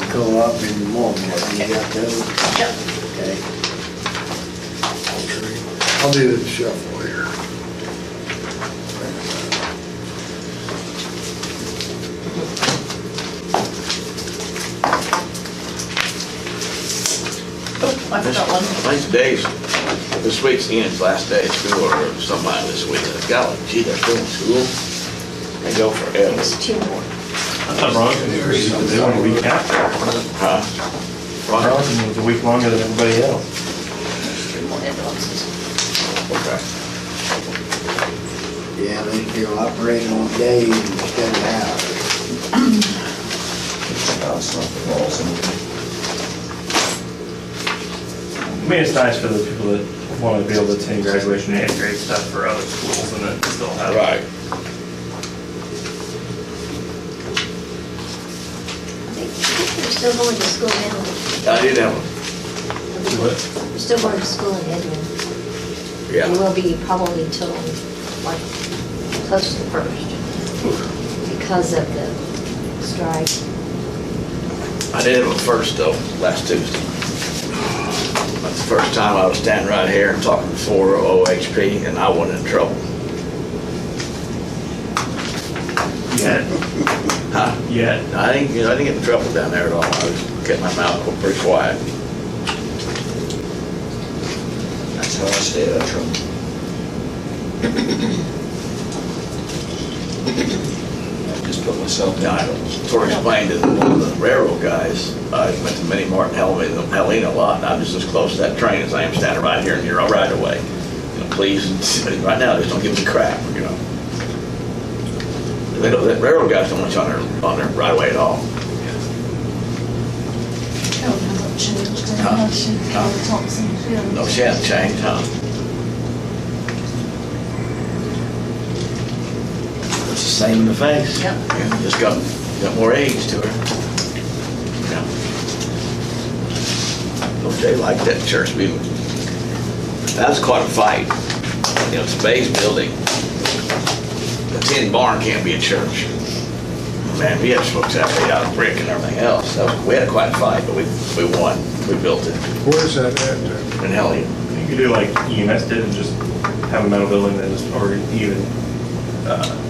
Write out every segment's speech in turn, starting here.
co-op and Walmart, you got those? Yep. Okay. I'll do the shuffle here. Oh, I forgot one. Nice days. This week's Ian's last day of school or somebody this week. I got like, gee, they're still in school. They go forever. It's two more. I thought Bronson was, they wanted a week after. Huh? Right? Bronson was a week longer than everybody else. Three more ambulances. Okay. Yeah, they still operating on days instead of hours. I mean, it's nice for the people that want to be able to attend graduation and great stuff for other schools and then still have. Right. I think They're still going to school in Edwin. I did have one. What? They're still going to school in Edwin. It Yeah. will be probably till like close to the first because of the strike. I did have one first though, last Tuesday. That's the first time I was standing right here and talking for OHP and I wasn't in trouble. Yet, Huh? yet. I didn't, you know, I didn't get in trouble down there at all. I was kept my mouth open pretty quiet. That's how I stay out of trouble. I just put myself Yeah, down. I sort of explained to one of the railroad guys, I went to Minnie Martin, Helena, Helena a lot, and I'm just as close to that train as I am standing right here and you're all right away. You know, Please, right now, just don't give me crap, you know? They don't, the railroad guys don't want you on their, on their right away at all. Code hasn't changed in Huh? relation to Huh? the Thompson Field. No chance change, huh? It's the same in the face. Yep. Yeah, Just got, got more age to her. Yeah. Don't they like that church building? That was quite a fight. You know, it's a base building. A tin barn can't be a church. Man, we had folks out there out of brick and everything else. That was- We had quite a fight, but we, we won. We built it. Where's that at? And hell, you You could do like E EMS did and just have a metal building that is, or even, uh,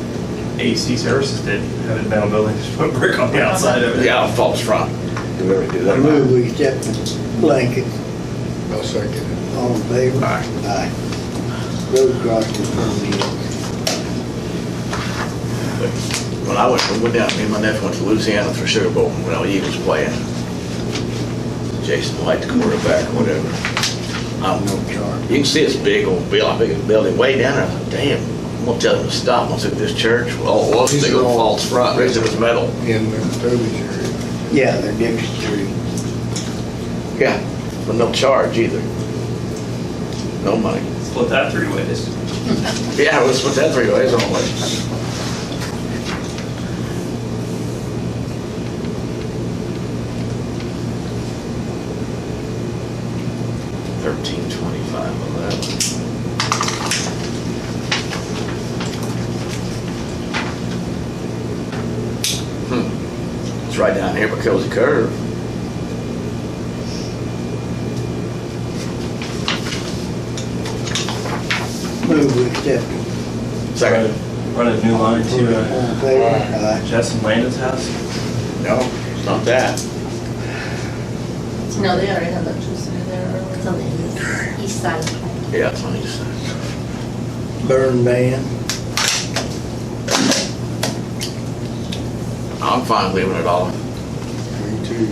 AC services did, have a metal building, just put brick on the outside of it. yeah, false front. You ever do I that? move we accept the blanket, I'll second it. all in favor? Aye. Aye. Road crossing permit. But When I went, we went down, me and my nephew went to Louisiana for Sugar Bowl when the Eagles playing. Jason White, the quarterback, whatever. Um, No charge. You can see it's big old building, big building way down there. I thought, Damn, I'm gonna tell them to stop. Once at this church, oh, well, it was These big are old all- false front, raised it was metal. In the Toby's area. Yeah, they're Dixie Street. Yeah. But no charge either. No money. Split that three ways. Yeah, let's put that three ways on it. Thirteen twenty-five eleven. Hmm, it's right down here because of the curve. Move we accept it. Second. Run a new line to, uh, All in favor? Aye. Justin Landon's house. No, it's not that. No, they already have electricity there. It's on the east- east side of the plant. Yeah, it's on the east side. Burn ban. I'm fine leaving it all. Me too.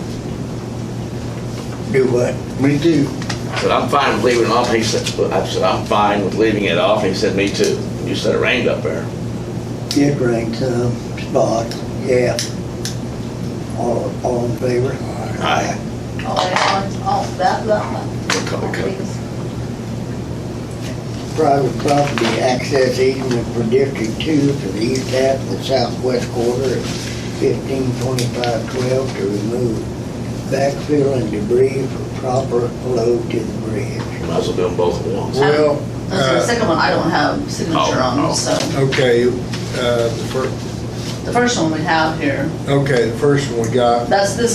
Do what? We do. I said, I'm fine with leaving it off. He said, I said, I'm fine with leaving it off. He said, me too. You said it rained up there. It ranked some spots, uh, yeah. All, all in favor? Aye. All that one, all Oh, that, that one. What color code? Private property access easement for District Two for the east half of the southwest quarter of fifteen twenty-five twelve to remove backfill and debris for proper load to the bridge. Might as well do them both at once. Well, The uh, second one, I don't have signature Oh, oh. on, so okay, uh, the first, the first one we have here, okay, the first one we got that's this